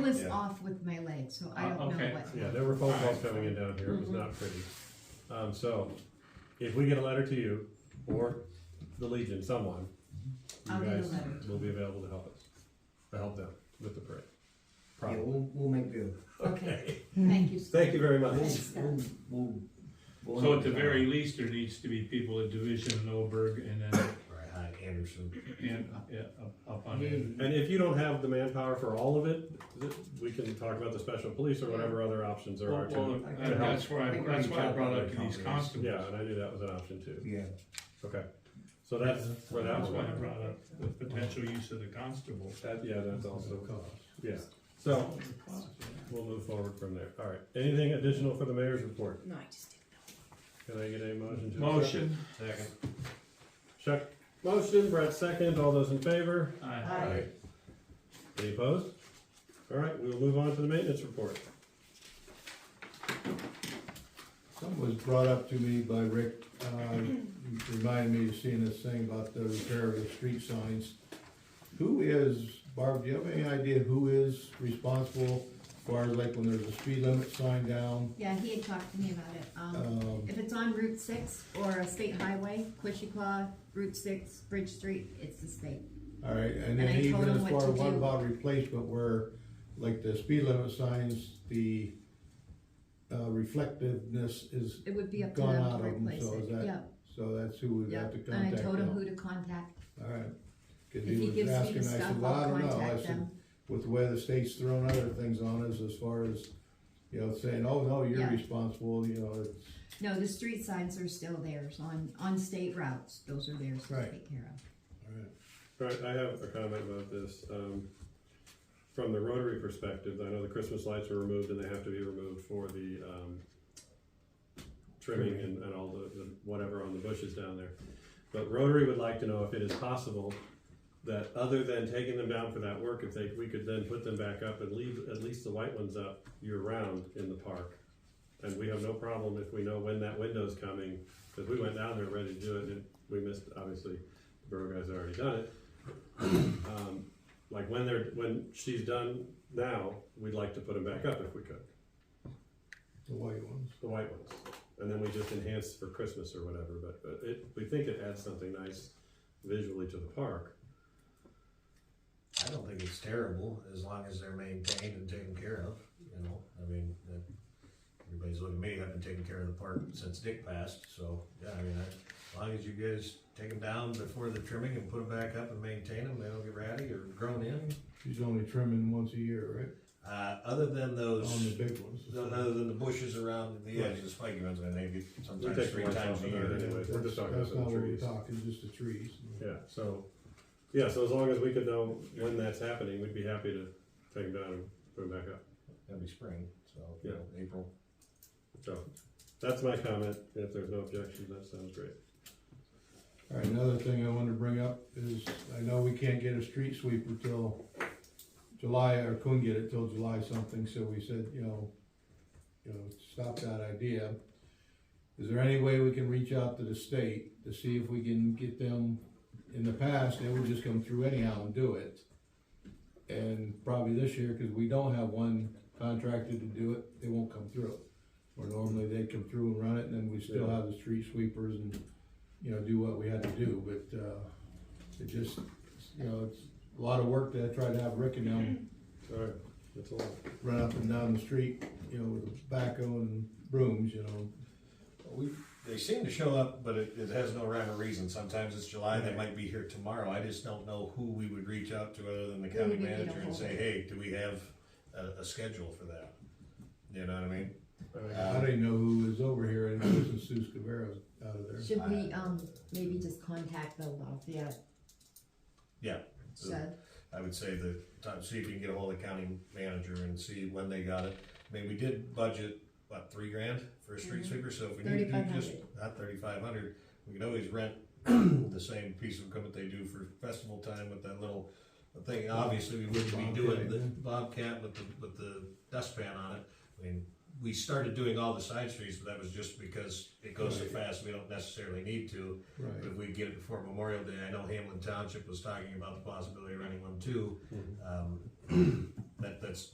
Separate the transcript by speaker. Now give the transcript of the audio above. Speaker 1: was
Speaker 2: Yeah.
Speaker 1: off with my leg, so I
Speaker 3: Uh,
Speaker 1: don't know
Speaker 3: okay.
Speaker 1: what.
Speaker 2: Yeah, there were phone calls coming in down here, it was
Speaker 1: Mm-hmm.
Speaker 2: not pretty. Um, so, if we get a letter to you, or the Legion, someone,
Speaker 1: I'll
Speaker 2: you
Speaker 1: get a
Speaker 2: guys
Speaker 1: letter to
Speaker 2: will be available to help us, to help them with the parade.
Speaker 4: Yeah,
Speaker 2: Probably.
Speaker 4: we'll, we'll make do.
Speaker 1: Okay, thank you.
Speaker 2: Thank you very much.
Speaker 4: We'll,
Speaker 1: Thanks, Scott.
Speaker 4: we'll, we'll- we'll.
Speaker 3: So at the very least, there needs to be people at Division and Oberg and then,
Speaker 4: Right, on Anderson.
Speaker 3: and, yeah, up- up on it.
Speaker 4: Yeah,
Speaker 2: And if you don't have the manpower for all of it, th- we can talk about the special police or whatever other options there
Speaker 3: Well,
Speaker 2: are
Speaker 3: well,
Speaker 2: too.
Speaker 3: uh, That's why, that's why I brought up these constables.
Speaker 2: Yeah, and I knew that was an option too.
Speaker 4: Yeah,
Speaker 2: Okay, so that's where that
Speaker 3: That's why
Speaker 2: one.
Speaker 3: I brought up the potential use of the constable.
Speaker 2: That, yeah, that's also, yeah, so we'll move forward from there. All right, anything additional for the mayor's report?
Speaker 5: No, I just didn't know.
Speaker 2: Can I get a motion to? accept?
Speaker 3: Motion.
Speaker 6: Second.
Speaker 2: Chuck, motion, Brett second, all those in favor?
Speaker 3: Aye.
Speaker 1: Aye.
Speaker 2: Any opposed? All right, we will move on to the maintenance report.
Speaker 7: Something was brought up to me by Rick, uh, reminded me of seeing this thing about the repair of the street signs. Who is, Barb, do you have any idea who is responsible as far as like when there's a speed limit sign down?
Speaker 1: Yeah, he had talked to me about it. Um,
Speaker 7: Um,
Speaker 1: if it's on Route six or a state highway, Quishiqua, Route six, Bridge Street, it's the state.
Speaker 7: all right, and
Speaker 1: And
Speaker 7: then
Speaker 1: I told
Speaker 7: even
Speaker 1: him
Speaker 7: as
Speaker 1: what
Speaker 7: far,
Speaker 1: to
Speaker 7: what
Speaker 1: do.
Speaker 7: about replacement where, like the speed limit signs, the uh, reflectiveness is,
Speaker 1: It would be up to
Speaker 7: Gone
Speaker 1: them
Speaker 7: out
Speaker 1: to
Speaker 7: of 'em,
Speaker 1: replace
Speaker 7: so
Speaker 1: it.
Speaker 7: is that-
Speaker 1: Yep,
Speaker 7: so that's who we have
Speaker 1: yep.
Speaker 7: to
Speaker 1: And I
Speaker 7: contact
Speaker 1: told him who
Speaker 7: now.
Speaker 1: to contact.
Speaker 7: All right, cause
Speaker 1: If he
Speaker 7: he was
Speaker 1: gives me
Speaker 7: asking,
Speaker 1: the
Speaker 7: I
Speaker 1: stuff,
Speaker 7: said, well, I
Speaker 1: I'll
Speaker 7: don't know, I
Speaker 1: contact
Speaker 7: said,
Speaker 1: them.
Speaker 7: with the way the state's throwing other things on us as far as, you know, saying, oh, no, you're
Speaker 1: Yeah.
Speaker 7: responsible, you know, it's,
Speaker 1: No, the street signs are still theirs on, on state routes. Those are theirs to
Speaker 7: Right.
Speaker 1: take care of.
Speaker 2: All right, I have a comment about this. Um, from the Rotary perspective, I know the Christmas lights were removed and they have to be removed for the, um, trimming and, and all the, the whatever on the bushes down there. But Rotary would like to know if it is possible that other than taking them down for that work, if they, we could then put them back up and leave at least the white ones up year-round in the park. And we have no problem if we know when that window's coming, because we went down there ready to do it and we missed, obviously, the borough guys already done it. Um, Like when they're, when she's done now, we'd like to put them back up if we could,
Speaker 7: the white ones.
Speaker 2: the white ones. And then we just enhance for Christmas or whatever, but, but it, we think it adds something nice visually to the park.
Speaker 4: I don't think it's terrible, as long as they're maintained and taken care of, you know, I mean, that, everybody's looking at me, I've been taking care of the park since Dick passed, so, yeah, I mean, I, as long as you guys take them down before the trimming and put them back up and maintain them, they don't get ratty or grown in.
Speaker 7: She's only trimming once a year,
Speaker 4: Uh, other than
Speaker 7: right? On the
Speaker 4: those,
Speaker 7: big ones.
Speaker 4: other than the bushes around the edge, the spiky ones, I think,
Speaker 2: We
Speaker 4: sometimes
Speaker 2: take
Speaker 4: three
Speaker 2: the lights
Speaker 4: times
Speaker 2: off
Speaker 4: a
Speaker 2: of there
Speaker 4: year.
Speaker 2: anyway. We're just talking about
Speaker 7: That's
Speaker 2: some
Speaker 7: not what we're
Speaker 2: trees.
Speaker 7: talking, just the trees.
Speaker 2: Yeah, so, yeah, so as long as we could know when that's happening, we'd be happy to take them down and put them back up.
Speaker 4: That'd be spring, so, you know, April.
Speaker 2: So, that's my comment. If there's no objection, that sounds great.
Speaker 7: All right, another thing I wanted to bring up is, I know we can't get a street sweeper till July, or couldn't get it till July something, so we said, you know, you know, stop that idea. Is there any way we can reach out to the state to see if we can get them, in the past, they would just come through anyhow and do it. And probably this year, cause we don't have one contracted to do it, they won't come through. Where normally they come through and run it, and then we still have the street sweepers and you know, do what we had to do, but, uh, it just, you know, it's a lot of work to try to have Rick and them
Speaker 2: All right, that's all.
Speaker 7: run up and down the street, you know, with tobacco and brooms, you know.
Speaker 4: We, they seem to show up, but it, it has no rhyme or reason. Sometimes it's July, they might be here tomorrow. I just don't know who we would reach out to other than the
Speaker 1: Who
Speaker 4: county
Speaker 1: would we need to
Speaker 4: manager and
Speaker 1: hold
Speaker 4: say,
Speaker 1: it?
Speaker 4: hey, do we have a, a schedule for that? You know what I mean?
Speaker 2: All right.
Speaker 4: Uh,
Speaker 7: I didn't know who was over here, and it wasn't Sue Scavero out of there.
Speaker 1: Should we, um, maybe just contact the Lafayette
Speaker 4: Yeah.
Speaker 1: shed?
Speaker 4: I would say the time, see if you can get a hold of the county manager and see when they got it. I mean, we did budget, what, three grand for a street sweeper, so if we need to do just, not Mm-hmm. thirty-five hundred, we could always rent the same piece of equipment they do for festival time with that little thing, obviously, we wouldn't be doing the Bobcat with the, with the dustpan on it. I mean, we started doing all the side streets, but that was just because it goes so fast, we don't necessarily need to. But
Speaker 7: Right,
Speaker 4: if we get it before Memorial Day, I know Hamlin Township was talking about the possibility of running one too. Um, That, that's